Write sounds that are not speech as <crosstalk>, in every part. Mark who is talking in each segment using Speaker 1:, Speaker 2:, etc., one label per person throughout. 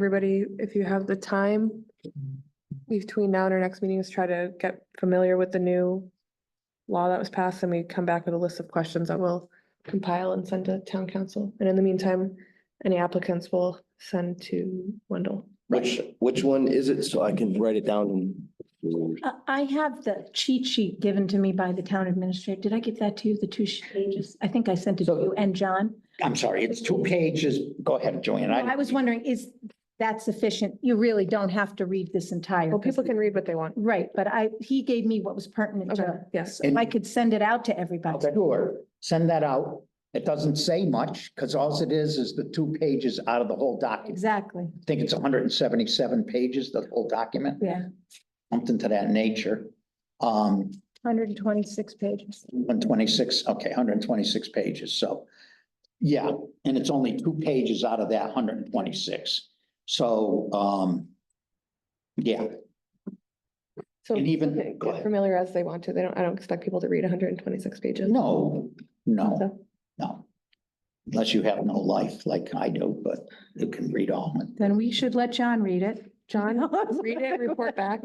Speaker 1: everybody, if you have the time, between now and our next meeting is try to get familiar with the new law that was passed and we come back with a list of questions that we'll compile and send to town council. And in the meantime, any applicants will send to Wendell.
Speaker 2: Which, which one is it? So I can write it down. and
Speaker 3: I- Uh, I have the cheat sheet given to me by the town administrator. Did I give that to you, the two sh- pages? I think I sent it to
Speaker 4: So-
Speaker 3: you and John.
Speaker 4: I'm sorry, it's two pages. Go ahead, Joanne.
Speaker 3: I was wondering, is that sufficient? You really don't have to read this entire.
Speaker 1: Well, people can read what they want.
Speaker 3: Right, but I, he gave me what was pertinent
Speaker 1: Okay,
Speaker 3: to,
Speaker 1: yes.
Speaker 3: if I could send it out to everybody.
Speaker 4: Okay, Sure, send that out. It doesn't say much because all it is is the two pages out of the whole document.
Speaker 3: Exactly,
Speaker 4: I think it's hundred and seventy-seven pages, the whole document,
Speaker 3: yeah,
Speaker 4: something to that nature. Um,
Speaker 3: hundred and twenty-six pages.
Speaker 4: one twenty-six, okay, hundred and twenty-six pages, so. Yeah, and it's only two pages out of that hundred and twenty-six. So, um, yeah,
Speaker 1: So
Speaker 4: And even-
Speaker 1: they can
Speaker 4: go
Speaker 1: get
Speaker 4: ahead.
Speaker 1: Familiar as they want to. They don't, I don't expect people to read hundred and twenty-six pages.
Speaker 4: no, no.
Speaker 1: So,
Speaker 4: No. Unless you have no life like I do, but you can read all of it.
Speaker 3: Then we should let John read it. <laughs>
Speaker 1: John, read it, report
Speaker 4: <laughs>
Speaker 1: back.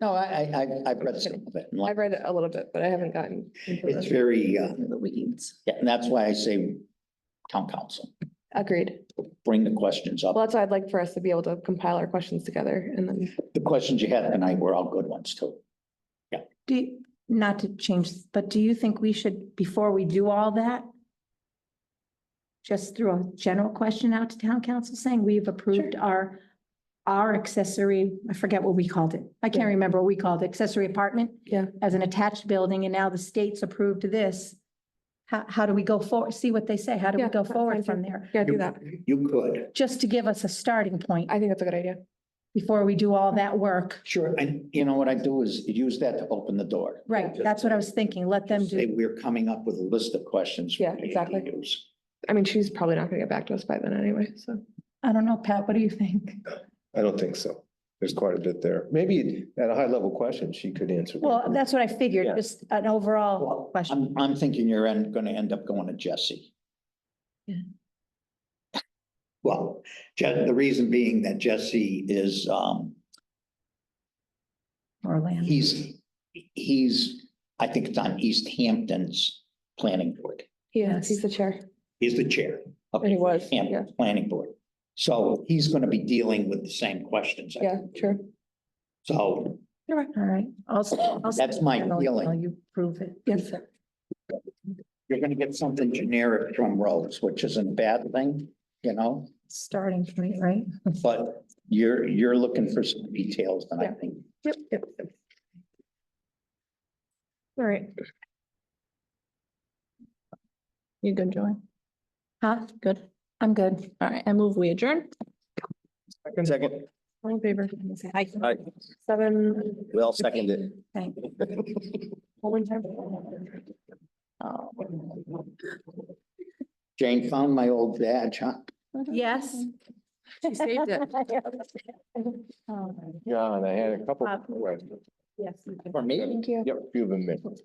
Speaker 4: No, I, I, I- I've read some of it. and
Speaker 1: I've
Speaker 4: like-
Speaker 1: read it a little bit, but I haven't gotten. into
Speaker 4: It's
Speaker 1: the-
Speaker 4: very, uh,
Speaker 3: The weeds.
Speaker 4: yeah, and that's why I say town council,
Speaker 1: Agreed.
Speaker 4: bring the questions
Speaker 1: Well,
Speaker 4: up.
Speaker 1: that's why I'd like for us to be able to compile our questions together and then,
Speaker 4: The questions you had tonight were all good ones too.
Speaker 3: Do, you- not to change, but do you think we should, before we do all that, just throw a general question out to town council saying we've approved our, our accessory, I forget what we called it. I can't
Speaker 1: Yeah.
Speaker 3: remember what we called it, accessory apartment?
Speaker 1: Yeah.
Speaker 3: As an attached building, and now the state's approved this. How, how do we go forward? See what they say. How do we
Speaker 1: Yeah,
Speaker 3: go
Speaker 1: that
Speaker 3: forward
Speaker 1: sounds
Speaker 3: from
Speaker 1: good.
Speaker 3: there?
Speaker 1: yeah, do that.
Speaker 4: You could.
Speaker 3: Just to give us a starting point
Speaker 1: I think that's a good idea.
Speaker 3: before we do all that work.
Speaker 4: Sure, and you know what I do is use that to open the door.
Speaker 3: Right, that's what I was thinking. Let them
Speaker 4: Say,
Speaker 3: do,
Speaker 4: we're coming up with a list of questions. for
Speaker 1: Yeah,
Speaker 4: you to
Speaker 1: exactly.
Speaker 4: use.
Speaker 1: I mean, she's probably not gonna get back to us by then anyway, so.
Speaker 3: I don't know, Pat, what do you think?
Speaker 5: I don't think so. There's quite a bit there. Maybe at a high level question, she could answer.
Speaker 3: Well, that's what I figured,
Speaker 5: Yeah.
Speaker 3: just an overall
Speaker 4: Well,
Speaker 3: question.
Speaker 4: I'm, I'm thinking you're en- gonna end up going to Jesse.
Speaker 3: Yeah.
Speaker 4: Well, Je- the reason being that Jesse is, um,
Speaker 3: Orlando.
Speaker 4: he's, he's, I think it's on East Hampton's planning board.
Speaker 1: Yeah,
Speaker 3: Yes.
Speaker 1: he's the chair.
Speaker 4: He's the chair. of
Speaker 1: And he was,
Speaker 4: Hampton Planning Board. So he's gonna be dealing with the same questions. I
Speaker 1: Yeah,
Speaker 4: think.
Speaker 1: true.
Speaker 4: So
Speaker 3: All right, also.
Speaker 4: That's my feeling.
Speaker 3: You prove it.
Speaker 1: Yes.
Speaker 4: you're gonna get something generic from Rose, which isn't a bad thing, you know?
Speaker 3: Starting point, right?
Speaker 4: But you're, you're looking for some details, and I
Speaker 1: Yeah.
Speaker 4: think
Speaker 1: Yep, yep. yep. All right. You good, Joanne?
Speaker 3: Huh? Good. I'm good.
Speaker 1: All right, I move we adjourn.
Speaker 5: Second,
Speaker 1: All in favor?
Speaker 3: Hi.
Speaker 5: Aye.
Speaker 1: Seven,
Speaker 5: Well, second it.
Speaker 3: Thank you.
Speaker 1: one time.
Speaker 4: Jane found my old badge, huh?
Speaker 3: Yes.
Speaker 1: She saved
Speaker 3: <laughs>
Speaker 1: it.
Speaker 3: Oh,
Speaker 5: John, I had a couple.
Speaker 3: Uh,
Speaker 5: questions.
Speaker 3: Yes. you can.
Speaker 4: For me?
Speaker 1: Thank you.
Speaker 5: Yep, few of them.